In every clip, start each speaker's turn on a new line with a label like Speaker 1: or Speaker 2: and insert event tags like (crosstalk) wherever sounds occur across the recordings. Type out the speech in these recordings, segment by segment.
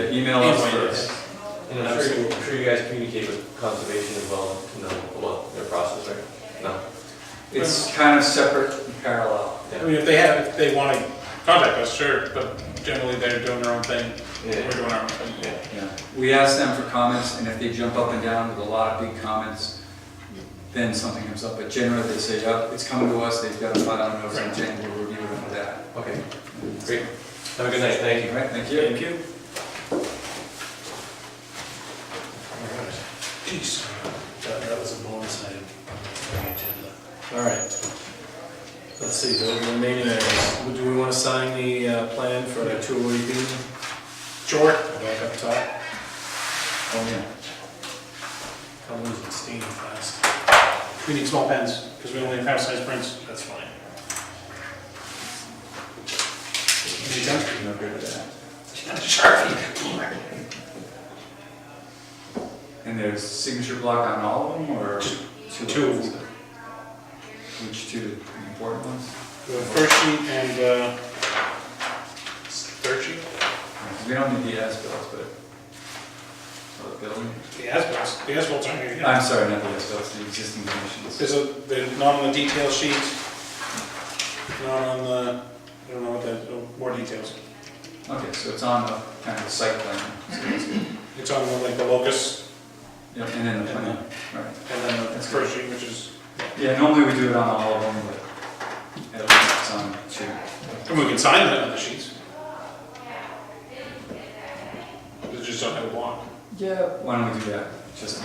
Speaker 1: the email on Wednesday.
Speaker 2: Yes. And I'm sure, I'm sure you guys communicate with conservation as well, you know, about their process, right? No?
Speaker 1: It's kind of separate and parallel.
Speaker 2: Yeah.
Speaker 3: I mean, if they have, if they want to contact us, sure, but generally they're doing their own thing, we're doing our own thing.
Speaker 2: Yeah.
Speaker 1: Yeah. We ask them for comments, and if they jump up and down with a lot of big comments, then something comes up. But generally, they say, "Yep, it's coming to us, they've got to find out, know something, we'll review it with that."
Speaker 2: Okay, great. Have a good night, thank you.
Speaker 1: All right, thank you. Thank you.
Speaker 4: Jeez, that, that was a bonus item on the agenda. All right. Let's see, the remaining items, Would- do we wanna sign the, uh, plan for the two oh eight B?
Speaker 3: Sure.
Speaker 4: Back up top,
Speaker 1: Oh, yeah.
Speaker 4: I'm losing steam fast.
Speaker 3: We need small pens, because we only have half-size prints.
Speaker 4: That's fine.
Speaker 3: Need them?
Speaker 1: No good with that. And there's signature block on all of them, or?
Speaker 3: two of
Speaker 1: Which two, the important ones?
Speaker 3: The first sheet and, uh, third sheet,
Speaker 1: We don't need the as-bills, but, or the building.
Speaker 3: the as the as-bills aren't here yet.
Speaker 1: I'm sorry, not the as-bills, the existing conditions.
Speaker 3: There's a, they're not on the detail sheet, not on the, I don't know what that, oh, more details.
Speaker 1: Okay, so it's on the, kind of the site plan, so that's good.
Speaker 3: It's on like the locus
Speaker 1: Yep, and then the plan, right.
Speaker 3: and then the first sheet, which is,
Speaker 1: Yeah, normally we do it on all of them, but at least it's on two.
Speaker 3: and we can sign that on the sheets. We just don't have a block.
Speaker 1: Yeah. Why don't we do that, just,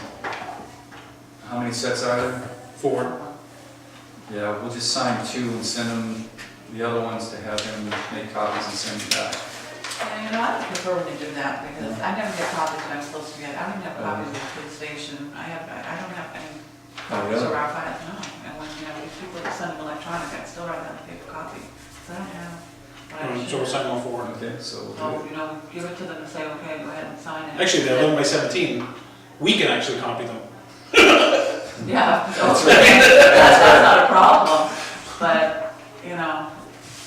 Speaker 1: how many sets are there?
Speaker 3: Four.
Speaker 1: Yeah, we'll just sign two and send them, the other ones to have them make copies and send them back.
Speaker 5: You know, I would prefer when they do that, because I never get copies that I'm supposed to get, I don't even have copies of the police station, I have, I I don't have any copies of our files, no. And when, you know, these people that send them electronic, I still rather have a paper copy, so I don't have. what I
Speaker 3: Um, So we'll
Speaker 5: should.
Speaker 3: sign all four.
Speaker 1: Okay, so we'll do
Speaker 5: Oh, you know, give it to them and say, okay, go ahead and sign it.
Speaker 3: Actually, they're
Speaker 5: (laughs)
Speaker 3: eleven by seventeen, we can actually copy them.
Speaker 5: Yeah, so-
Speaker 1: That's
Speaker 5: that's,
Speaker 1: right.
Speaker 5: (laughs) that's not a problem, but, you know,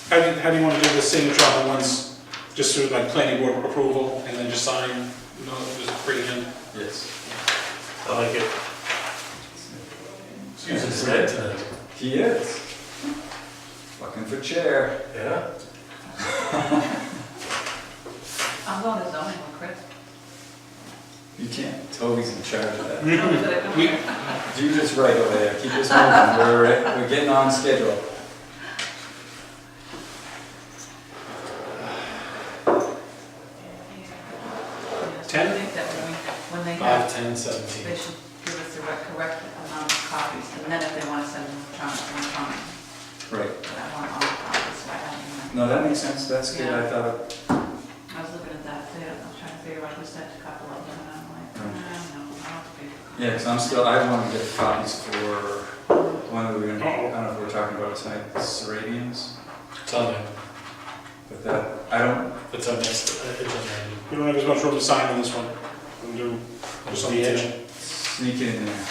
Speaker 3: How do you, how do you want to do the signature on the ones, just through like planning board approval, and then just sign, you know, just bring it in?
Speaker 1: it. Yes.
Speaker 4: I like it. Excuse me, red tonight.
Speaker 1: He is. Looking for chair.
Speaker 4: Yeah?
Speaker 5: I'm going to zoning with Chris.
Speaker 1: You can't, Toby's in charge of that.
Speaker 3: Mm-hmm. We,
Speaker 1: Do this right over there, keep this moving, we're, we're getting on schedule.
Speaker 3: Ten?
Speaker 5: I think that when we, when they have
Speaker 4: Five, ten,
Speaker 5: They
Speaker 4: seventeen.
Speaker 5: should give us the rec- correct amount of copies, and then if they want to send them electronic, then fine.
Speaker 1: Right.
Speaker 5: But I want all the copies, so I have them.
Speaker 1: No, that makes sense, that's good, I thought,
Speaker 5: I was looking at that, too. I was trying to figure out who sent a couple of them, and I'm like, "Uh, I don't know, I don't think.
Speaker 1: yeah, because I'm still, I want to get copies for the one that we we're, gonna- I don't know if we're talking about tonight, the Seradians,
Speaker 4: It's on there,
Speaker 1: but that, I don't,
Speaker 4: it's on next, it's on there.
Speaker 3: we don't have as much room to sign on this one, we'll do just on the edge.
Speaker 1: sneak it in there.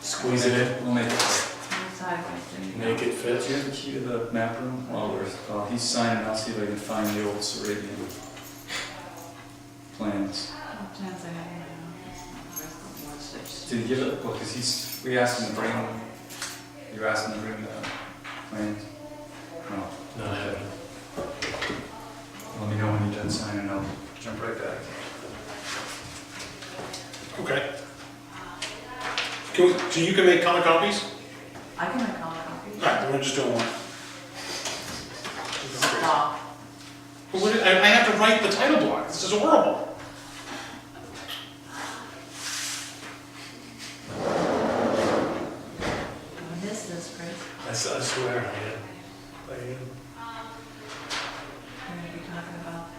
Speaker 4: Squeeze it in,
Speaker 1: We'll make it.
Speaker 5: It's Sideways, there you go.
Speaker 4: make it fit.
Speaker 1: Do you have the key to the map room? While we're, while he's signing, I'll see if I can find the old Sarabian plans.
Speaker 5: Oh, Sometimes I have, you know, it's not the rest of the board, so it's-
Speaker 1: Did he give it, well, because he's, we asked him to bring, you asked him to bring the plans. No,
Speaker 4: Not having it.
Speaker 1: let me know when you're done signing, I'll jump right back.
Speaker 3: Okay. Can, we- so you can make color copies?
Speaker 5: I can make all the copies.
Speaker 3: Alright, then we're just doing one.
Speaker 5: Stop.
Speaker 3: But what, I, I have to write the title block, this is horrible.
Speaker 5: I missed this, Chris.
Speaker 4: I s- I swear I am. I am.
Speaker 5: We're going to be talking about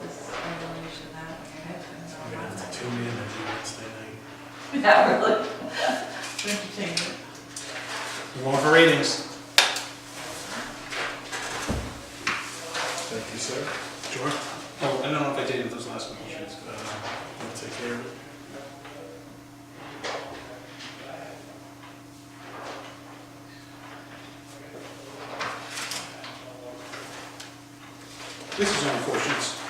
Speaker 5: this resolution, that, okay? that's all
Speaker 4: I'm gonna
Speaker 5: right.
Speaker 4: have to tune in and do Wednesday night.
Speaker 5: (laughs) Yeah, really. Entertainment.
Speaker 3: We're going for ratings.
Speaker 4: Thank you, sir.
Speaker 3: Sure. Oh, I don't know if I dated those last ones.
Speaker 4: Uh, I'll take care of it.
Speaker 3: This is on four sheets.